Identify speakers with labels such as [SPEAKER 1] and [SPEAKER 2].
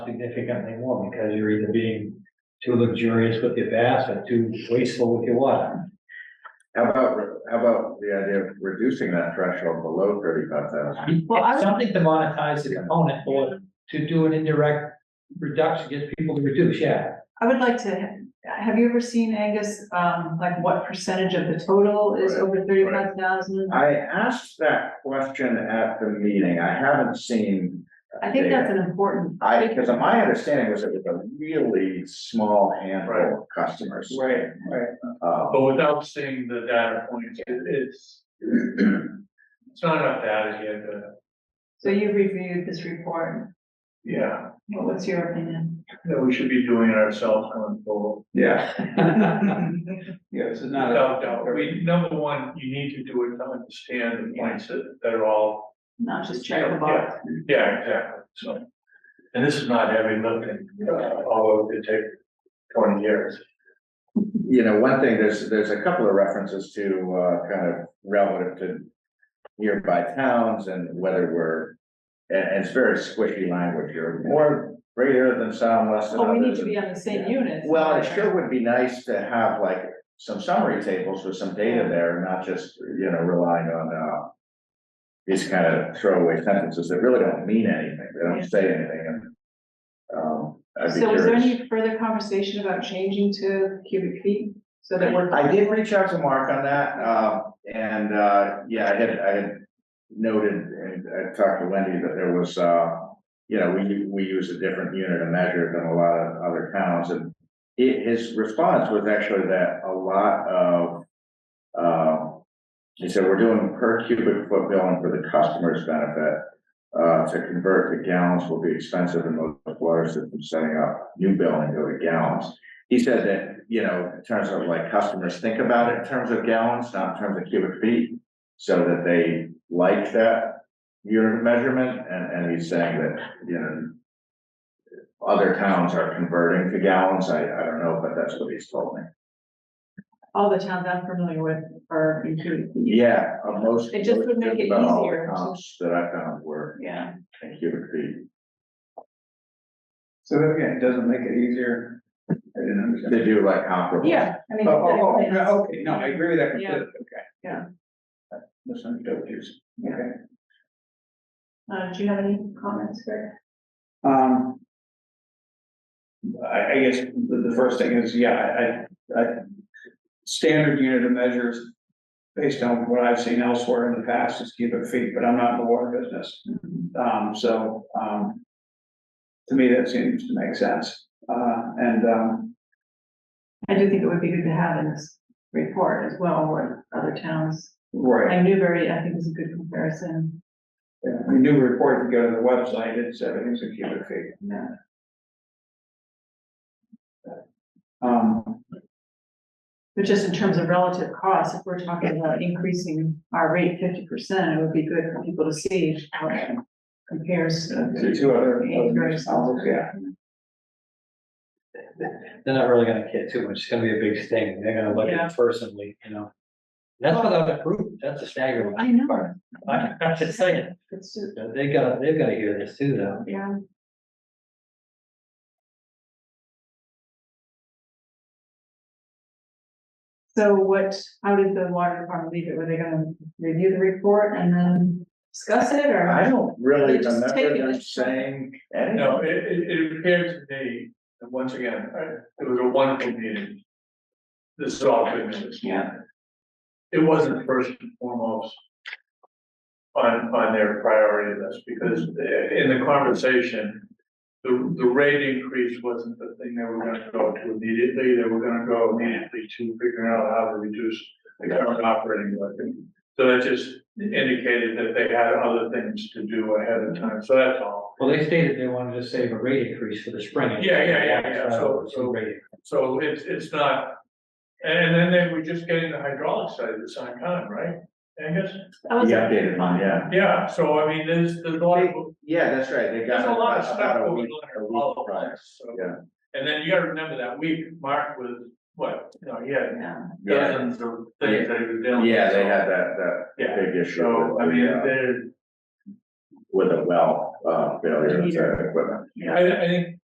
[SPEAKER 1] significantly more because you're either being too luxurious with your bass or too wasteful with your water.
[SPEAKER 2] How about, how about the idea of reducing that threshold below thirty-five thousand?
[SPEAKER 3] Well, I-
[SPEAKER 1] Something to monetize the component or to do an indirect reduction, get people to reduce, yeah.
[SPEAKER 3] I would like to, have you ever seen Angus, um, like what percentage of the total is
[SPEAKER 2] Right,
[SPEAKER 3] over thirty-five thousand?
[SPEAKER 2] I asked that question at the meeting, I haven't seen.
[SPEAKER 3] I think that's
[SPEAKER 2] data.
[SPEAKER 3] an important.
[SPEAKER 2] I, because my understanding was it was a really small handful of customers.
[SPEAKER 4] Right, right,
[SPEAKER 2] Uh,
[SPEAKER 4] but without seeing the data points, it- it's, it's not enough data yet, but,
[SPEAKER 3] So you reviewed this report,
[SPEAKER 4] yeah,
[SPEAKER 3] What- what's your opinion?
[SPEAKER 4] that we should be doing it ourselves going forward.
[SPEAKER 2] yeah,
[SPEAKER 5] Yeah, this is not,
[SPEAKER 4] Without doubt, I mean, number one, you need to do it to understand the points that, that are all,
[SPEAKER 3] Not just check the box.
[SPEAKER 4] yeah, exactly, so. And this is not heavy lifting, uh, although it could take twenty years.
[SPEAKER 2] you know, one thing, there's, there's a couple of references to, uh, kind of relative to. Nearby towns and whether we're, and, and it's very squishy language, you're more greater than some, less than
[SPEAKER 3] Well, we need
[SPEAKER 2] others,
[SPEAKER 3] to
[SPEAKER 2] and-
[SPEAKER 3] be on the same unit.
[SPEAKER 2] Well, it sure would be nice to have like some summary tables with some data there, not just, you know, relying on, uh. These kind of throwaway sentences that really don't mean anything, they don't say anything and. Um, I'd be
[SPEAKER 3] So is there
[SPEAKER 2] curious.
[SPEAKER 3] any further conversation about changing to cubic feet? So that we're,
[SPEAKER 2] I did reach out to Mark on that, uh, and, uh, yeah, I had, I had noted, and I talked to Wendy that there was, uh, you know, we, we use a different unit of measure than a lot of other towns, and it, his response was actually that a lot of, uh, he said, we're doing per cubic foot billing for the customer's benefit. Uh, to convert to gallons will be expensive in most water systems, setting up new billing go to gallons he said that, you know, in terms of like customers think about it in terms of gallons, not in terms of cubic feet. So that they like that unit of measurement and, and he's saying that, you know. Other towns are converting to gallons. I, I don't know, but that's what he's told me.
[SPEAKER 3] all the towns I'm familiar with are in cubic feet.
[SPEAKER 2] Yeah, uh, most.
[SPEAKER 3] It just would make it
[SPEAKER 2] about all the
[SPEAKER 3] easier to-
[SPEAKER 2] towns That I found were
[SPEAKER 3] Yeah,
[SPEAKER 2] in cubic feet.
[SPEAKER 5] so again, it doesn't make it easier. I didn't understand.
[SPEAKER 2] They do like comparable.
[SPEAKER 3] yeah, I mean.
[SPEAKER 5] Oh, oh, oh,
[SPEAKER 3] it's-
[SPEAKER 5] no, okay, no, I agree with that completely, okay.
[SPEAKER 3] Yeah.
[SPEAKER 5] Misunderstood, yes. okay.
[SPEAKER 3] Uh, do you have any comments, Greg?
[SPEAKER 5] Um. I, I guess the, the first thing is, yeah, I, I, standard unit of measures. Based on what I've seen elsewhere in the past is cubic feet, but I'm not in the water business,
[SPEAKER 3] Mm-hmm.
[SPEAKER 5] um, so, um. To me, that seems to make sense, uh, and, um,
[SPEAKER 3] I do think it would be good to have in this report as well, what other towns,
[SPEAKER 5] right,
[SPEAKER 3] I Newbury, I think is a good comparison.
[SPEAKER 5] yeah, a new report, if you go to the website, it's, everything's a cubic feet.
[SPEAKER 3] Yeah.
[SPEAKER 5] Um,
[SPEAKER 3] But just in terms of relative costs, if we're talking about increasing our rate fifty percent, it would be good for people to see how it compares.
[SPEAKER 5] to two other, other examples, yeah.
[SPEAKER 1] They're not really gonna care too much. It's gonna be a big sting. They're gonna look
[SPEAKER 3] Yeah.
[SPEAKER 1] at it personally, you know. That's without a proof. That's a staggering.
[SPEAKER 3] I know.
[SPEAKER 1] I, I'm just saying.
[SPEAKER 3] It's just,
[SPEAKER 1] They gotta, they've gotta hear this too, though.
[SPEAKER 3] yeah, so what, how did the water department leave it? Were they gonna review the report and then discuss it or?
[SPEAKER 2] I don't really
[SPEAKER 3] They're just
[SPEAKER 2] remember
[SPEAKER 3] taking
[SPEAKER 2] them
[SPEAKER 3] it.
[SPEAKER 2] saying anything.
[SPEAKER 4] No, it, it, it appeared to me, and once again, I- it was a wonderful meeting. This is all good news.
[SPEAKER 3] Yeah.
[SPEAKER 4] It wasn't first and foremost on, on their priority list, because in the conversation, the, the rate increase wasn't the thing they were gonna go to immediately, they were gonna go immediately to figuring out how to reduce the current operating budget. So that just indicated that they had other things to do ahead of time, so that's all.
[SPEAKER 1] Well, they stated they wanted to save a rate increase for the spring.
[SPEAKER 4] Yeah, yeah, yeah, yeah. So- so-
[SPEAKER 1] Rate increase.
[SPEAKER 4] So it's, it's not, and then they were just getting the hydraulic study at the same time, right? Angus?
[SPEAKER 3] I was-
[SPEAKER 2] The updated one, yeah.
[SPEAKER 4] Yeah, so I mean, there's, there's a lot of,
[SPEAKER 2] Yeah, that's right, they got.
[SPEAKER 4] there's a lot of stuff
[SPEAKER 2] about a
[SPEAKER 4] going
[SPEAKER 2] week-
[SPEAKER 4] on
[SPEAKER 2] a
[SPEAKER 4] in
[SPEAKER 2] week
[SPEAKER 4] all of
[SPEAKER 2] prior.
[SPEAKER 4] us, so.
[SPEAKER 2] Yeah.
[SPEAKER 4] And then you gotta remember that week, Mark was, what, you know, he had
[SPEAKER 3] Yeah.
[SPEAKER 2] Yeah,
[SPEAKER 4] dozens of things that he was dealing with.
[SPEAKER 2] yeah, they
[SPEAKER 4] so-
[SPEAKER 2] had that, that
[SPEAKER 4] Yeah,
[SPEAKER 2] big issue.
[SPEAKER 4] So,
[SPEAKER 2] with
[SPEAKER 4] I mean,
[SPEAKER 2] the, uh,
[SPEAKER 4] there's
[SPEAKER 2] with a well, uh, failure of the equipment.
[SPEAKER 4] I, I think